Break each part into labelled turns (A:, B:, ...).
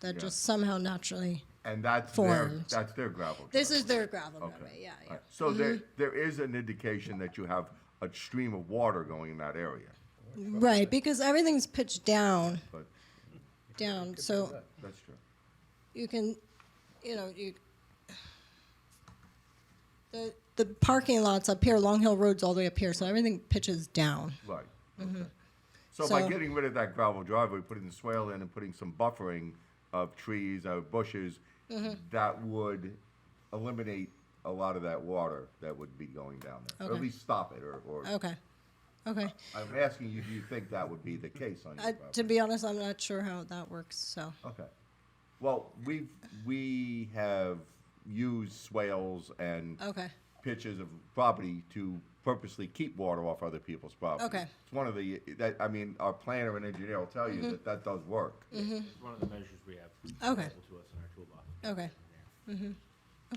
A: that
B: Yeah.
A: just somehow naturally.
B: And that's their,
A: Formed.
B: that's their gravel
A: This
B: driveway.
A: is their gravel driveway. Yeah, yeah.
B: All right. So
A: Mm-hmm.
B: there, there is an indication that you have a stream of water going in that area,
A: Right, because everything's pitched down,
B: but
A: down. So
B: that's true.
A: you can, you know, you. The, the parking lots up here, Long Hill Road's all the way up here, so everything pitches down.
B: Right. Okay. So by
A: Mm-hmm. So-
B: getting rid of that gravel driveway, putting the swale in and putting some buffering of trees, of bushes,
A: Mm-hmm.
B: that would eliminate a lot of that water that would be going down there. Or at
A: Okay.
B: least stop it, or, or,
A: Okay, okay.
B: I'm asking you, do you think that would be the case on
A: Uh,
B: your
A: to
B: property?
A: be honest, I'm not sure how that works, so.
B: Okay. Well, we've, we have used swales and
A: Okay,
B: pitches of property to purposely keep water off other people's property.
A: Okay.
B: It's one of the, that, I mean, our planner and engineer will tell
A: Mm-hmm.
B: you that that does work.
C: It's one of the measures we have
A: Okay.
C: available to us in our toolbox.
A: okay. Mm-hmm.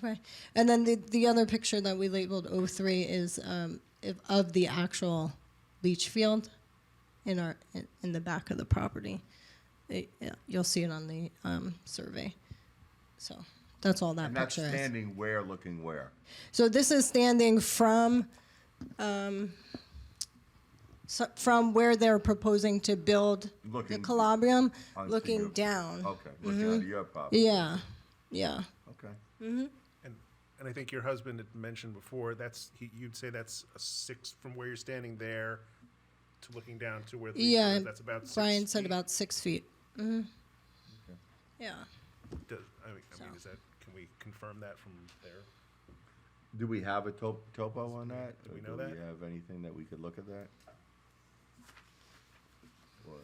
A: Okay, and then the, the other picture that we labeled O3 is um, if, of the actual leach field in our, in- in the back of the property. It- yeah, You'll see it on the um, survey. So that's all that
B: And that's
A: picture is.
B: standing where, looking where?
A: So this is standing from, um, so- from where they're proposing to build the
B: Looking-
A: Calabrium,
B: onto
A: looking
B: your-
A: down.
B: Okay, looking onto your property,
A: Yeah, Mm-hmm. yeah.
B: okay.
D: And, and I think your husband had mentioned before, that's, he, you'd say that's a six, from where you're standing there to looking down to where the. leaves
A: Yeah,
D: are, That's about six
A: Brian said
D: feet.
A: about six feet. hmm Yeah.
D: Does- I mean, I mean,
A: So.
D: is that, can we confirm that from there?
B: Do we have a to- topo on that?
D: Do we
B: Or
D: know
B: Do
D: that?
B: we have anything that we could look at that? Or,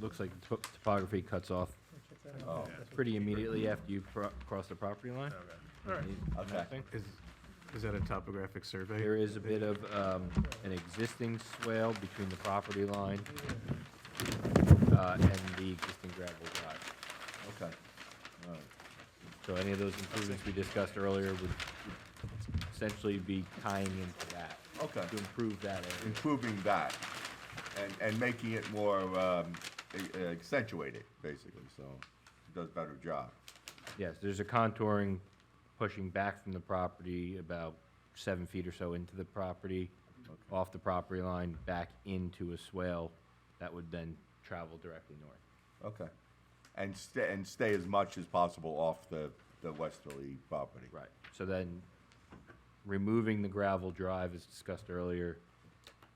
E: Looks like the top- topography cuts off
B: oh,
E: pretty immediately after you pro- cross the property line.
D: Okay, all right.
B: okay,
F: Is, is that a topographic survey?
E: There is a bit of um, an existing swale between the property line uh, and the existing gravel drive.
B: okay. All right.
E: So any of those improvements we discussed earlier would would essentially be tying into that.
B: Okay.
E: To improve that area.
B: Improving that and, and making it more, um, a- accentuated, basically, so it does a better job.
E: Yes, there's a contouring pushing back from the property about seven feet or so into the property, off the property line, back into a swale that would then travel directly north.
B: Okay. And stay, and stay as much as possible off the, the westerly property.
E: Right. So then, removing the gravel drive, as discussed earlier,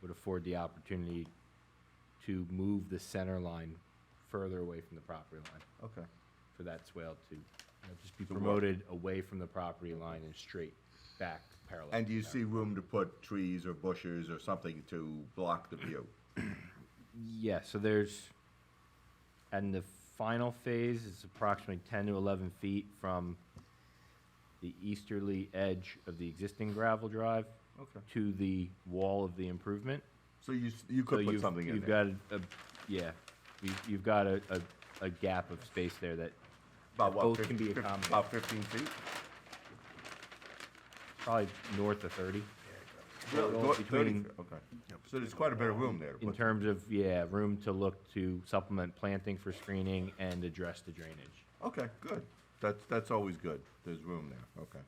E: would afford the opportunity to move the center line further away from the property line
B: Okay,
E: for that swale to, you know, just be
B: To work.
E: promoted away from the property line and straight back parallel.
B: and
E: to
B: do you
E: the
B: see room to put trees or bushes or something to block the view?
E: Yeah, so there's, and the final phase is approximately ten to eleven feet from the easterly edge of the existing gravel drive
B: Okay.
E: to the wall of the improvement.
B: So you, s- you
E: So
B: could put
E: you've,
B: something in
E: you've
B: there.
E: got a, a- yeah, you- you've got a, a, a gap of space there that
B: About what,
E: both
B: 50
E: can be
B: fif-
E: accommodated.
B: About fifteen feet?
E: probably north of thirty.
B: Really?
E: Well,
B: Go- 30
E: between-
B: feet, Okay. So there's quite a bit of room there. to
E: In
B: put-
E: terms of, yeah, room to look to supplement planting for screening and address the drainage.
B: Okay, good. That's, that's always good. There's room there, okay.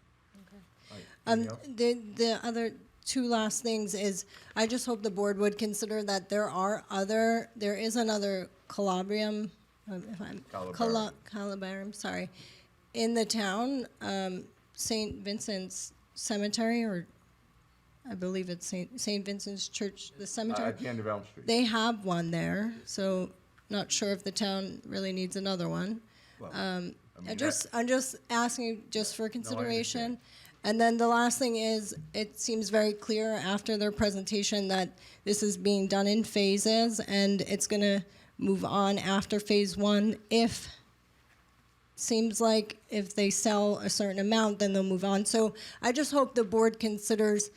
B: All right,
A: Um,
B: anything else?
A: the, the other two last things is, I just hope the board would consider that there are other, there is another Calabrium, um, if I'm, Cala- Calabarium, sorry, in the town, um, St. Vincent's Cemetery, or I believe it's St. St. Vincent's Church, the
B: Uh,
A: cemetery.
B: At the end of Elm Street.
A: They have one there, so not sure if the town really needs another one.
B: Well,
A: Um,
B: mean,
A: I
B: that-
A: just, I'm just asking just for consideration. And then the last thing is, it seems very clear after their presentation that this is being done in phases and it's gonna move on after phase one if seems like if they sell a certain amount, then they'll move on. So I just hope the board considers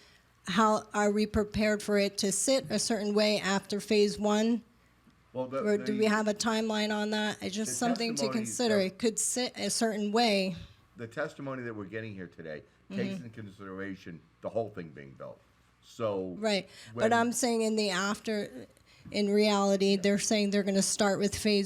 A: how are we prepared for it to sit a certain way after phase one?
B: Well, the-
A: Or do we
B: the-
A: have a timeline on that? It's
B: The
A: just something to
B: testimony
A: consider.
B: that-
A: It could sit a certain way.
B: the testimony that we're getting here today takes
A: Mm-hmm.
B: into consideration the whole thing being built. So
A: Right.
B: when-
A: But I'm saying in the after, in reality, they're saying they're gonna start with phase